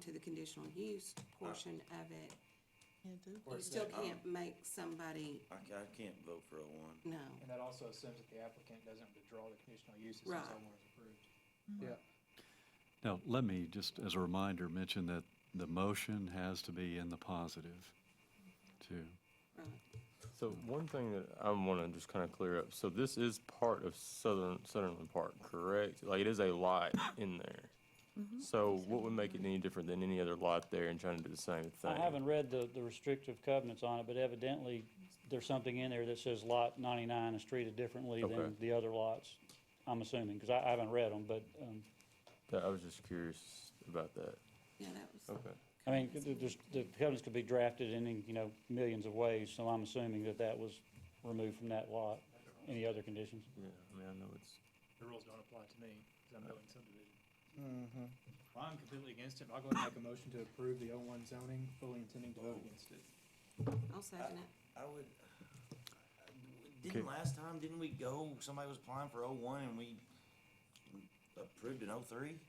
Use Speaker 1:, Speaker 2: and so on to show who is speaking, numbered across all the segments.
Speaker 1: to the conditional use portion of it,
Speaker 2: Can't do.
Speaker 1: you still can't make somebody,
Speaker 3: I, ca- I can't vote for oh one.
Speaker 1: no.
Speaker 4: And that also assumes that the applicant doesn't withdraw the conditional use as soon as
Speaker 1: Right.
Speaker 4: someone is approved.
Speaker 5: Now, let me, just as a reminder, mention that the motion has to be in the positive, too.
Speaker 1: right.
Speaker 6: So one thing that I want to just kind of clear up, so this is part of Southern, Sutherland Park, correct? Like it is a lot in there. So what would make it any different than any other lot there and trying to do the same thing?
Speaker 7: I haven't read the, the restrictive covenants on it, but evidently there's something in there that says lot ninety-nine is treated differently than
Speaker 6: Okay.
Speaker 7: the other lots. I'm assuming, because I, I haven't read them, but, um,
Speaker 6: That- I was just curious about that.
Speaker 1: Yeah, that was,
Speaker 6: Okay.
Speaker 7: I mean, th- th- there's, the covenants could be drafted in, you know, millions of ways, so I'm assuming that that was removed from that lot. Any other conditions?
Speaker 6: Yeah, I mean, I know it's,
Speaker 4: The rules don't apply to me, because I'm building subdivision. Well, I'm completely against it, but I'll go ahead and make a motion to approve the O1 zoning, fully intending to vote against it.
Speaker 1: I'll second it.
Speaker 3: I would, uh, didn't last time, didn't we go, somebody was applying for oh one and we approved an oh three?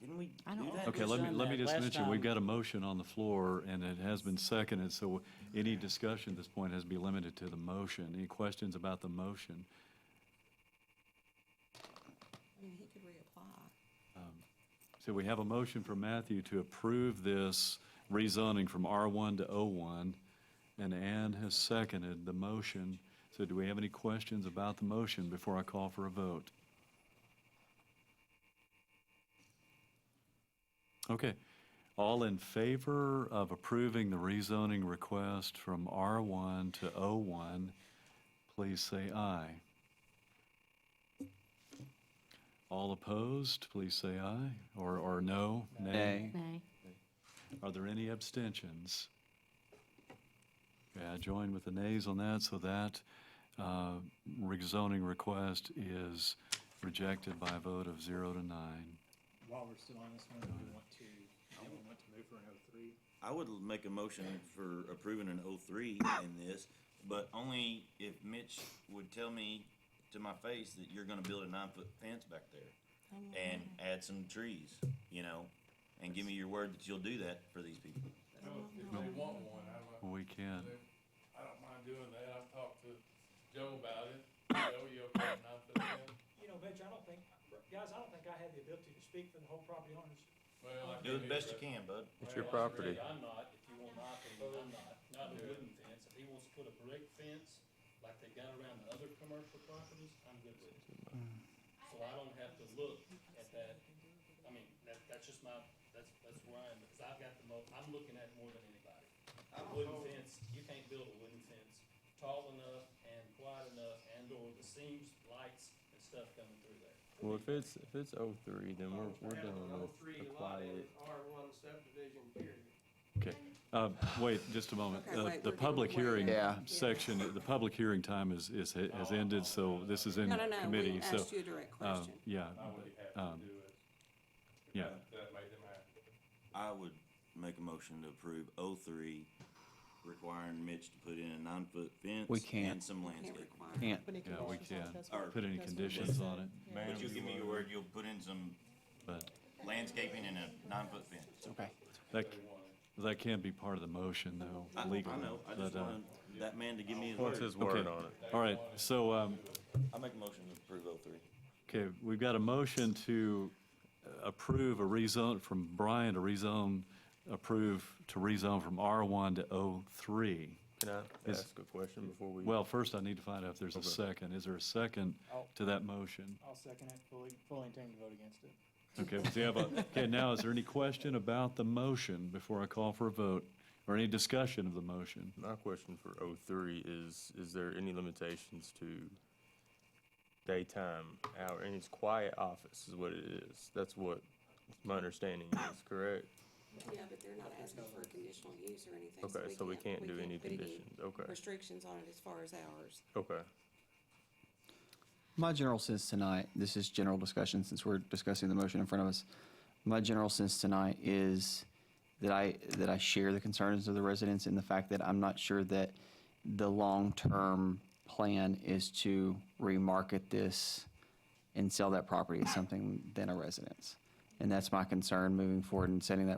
Speaker 3: Didn't we
Speaker 2: I
Speaker 3: do
Speaker 2: don't-
Speaker 3: that?
Speaker 5: Okay,
Speaker 7: was
Speaker 5: let me,
Speaker 7: on
Speaker 5: let me
Speaker 7: that
Speaker 5: just
Speaker 7: last
Speaker 5: mention, we've
Speaker 7: time.
Speaker 5: got a motion on the floor, and it has been seconded, so any discussion at this point has to be limited to the motion. Any questions about the motion?
Speaker 1: I mean, he could reapply.
Speaker 5: So we have a motion from Matthew to approve this rezoning from R1 to O1, and Ann has seconded the motion. So do we have any questions about the motion before I call for a vote? Okay. All in favor of approving the rezoning request from R1 to O1, please say aye. All opposed, please say aye, or, or no, nay.
Speaker 2: Nay.
Speaker 5: Are there any abstentions? Okay, I join with the nays on that, so that uh, rezoning request is rejected by a vote of zero to nine.
Speaker 4: While we're still on this one, do we want to, do we want to move for an O3?
Speaker 3: I would l- make a motion for approving an oh three in this, but only if Mitch would tell me to my face that you're gonna build a nine foot fence back there and add some trees, you know, and give me your word that you'll do that for these people.
Speaker 8: Well, If they want one, I don't,
Speaker 5: We can't.
Speaker 8: I don't mind doing that, I've talked to Joe about it, Joe, you okay enough with that?
Speaker 9: you know, Mitch, I don't think, guys, I don't think I had the ability to speak for the whole property owners.
Speaker 8: Well, I
Speaker 3: Do
Speaker 8: can't
Speaker 3: the best
Speaker 8: either.
Speaker 3: you can, bud.
Speaker 6: it's your
Speaker 10: Well,
Speaker 6: property.
Speaker 10: Greg, I'm not, if you want my opinion, I'm not, not a wooden fence, if he wants to put a brick fence, like they got around the other commercial properties, I'm good with it.
Speaker 6: Mm.
Speaker 10: So I don't have to look at that, I mean, that, that's just my, that's, that's where I am, because I've got the mo, I'm looking at it more than anybody. A wooden fence, you can't build a wooden fence tall enough and wide enough and or the seams, lights and stuff coming through there.
Speaker 6: Well, if it's, if it's oh three, then we're, we're done with apply it.
Speaker 10: R one subdivision period.
Speaker 5: Okay. Uh, Wait, just a moment.
Speaker 1: Okay,
Speaker 5: Uh,
Speaker 1: wait,
Speaker 5: The
Speaker 1: we're
Speaker 5: public
Speaker 1: getting way
Speaker 5: hearing
Speaker 1: out. Yeah.
Speaker 5: section, the public hearing time is, is, has ended, so this is in
Speaker 1: No, no, no, we
Speaker 5: committee, so.
Speaker 1: asked you a direct
Speaker 5: uh,
Speaker 1: question.
Speaker 5: Yeah.
Speaker 8: I would be happy
Speaker 5: um,
Speaker 8: to do it. if
Speaker 5: yeah.
Speaker 8: that- That made them happy.
Speaker 3: I would make a motion to approve O three, requiring Mitch to put in a nine-foot fence.
Speaker 11: We can't.
Speaker 3: And some
Speaker 1: Can't
Speaker 3: landscaping.
Speaker 1: require.
Speaker 2: Put any
Speaker 5: Yeah, we
Speaker 2: conditions on it,
Speaker 5: can.
Speaker 2: that's what-
Speaker 3: Or-
Speaker 5: Put any
Speaker 2: that's what we
Speaker 5: conditions
Speaker 2: said.
Speaker 5: on it,
Speaker 2: Yeah.
Speaker 3: Would you give me your word you'll put in some
Speaker 5: but
Speaker 3: landscaping and a nine-foot fence?
Speaker 11: Okay.
Speaker 5: that, that can be part of the motion,
Speaker 3: I, I
Speaker 5: though, legally.
Speaker 3: know, I just
Speaker 5: but, uh,
Speaker 3: wanted that man to give me his
Speaker 6: What's
Speaker 3: word.
Speaker 6: his word
Speaker 5: Okay.
Speaker 6: on it?
Speaker 5: All right, so, um,
Speaker 3: I make a motion to approve O three.
Speaker 5: Okay, we've got a motion to approve a rezone, from Brian to rezone, approve to rezone from R1 to O3.
Speaker 6: Can I
Speaker 5: Is-
Speaker 6: ask a question before we?
Speaker 5: Well, first I need to find out if there's a second. Is there a second
Speaker 4: I'll-
Speaker 5: to that motion?
Speaker 4: I'll second it, fully, fully intending to vote against it.
Speaker 5: Okay, we have a, okay, now, is there any question about the motion before I call for a vote? Or any discussion of the motion?
Speaker 6: My question for O three is, is there any limitations to daytime hour, and it's quiet office is what it is, that's what my understanding is, correct?
Speaker 1: Yeah, but they're not asking for a conditional use or anything.
Speaker 6: Okay, so we can't do any
Speaker 1: put any
Speaker 6: conditions, okay,
Speaker 1: Restrictions on it as far as ours.
Speaker 6: okay.
Speaker 11: My general sense tonight, this is general discussion since we're discussing the motion in front of us. My general sense tonight is that I, that I share the concerns of the residents and the fact that I'm not sure that the long-term plan is to remarket this and sell that property as something than a residence. And that's my concern moving forward and setting that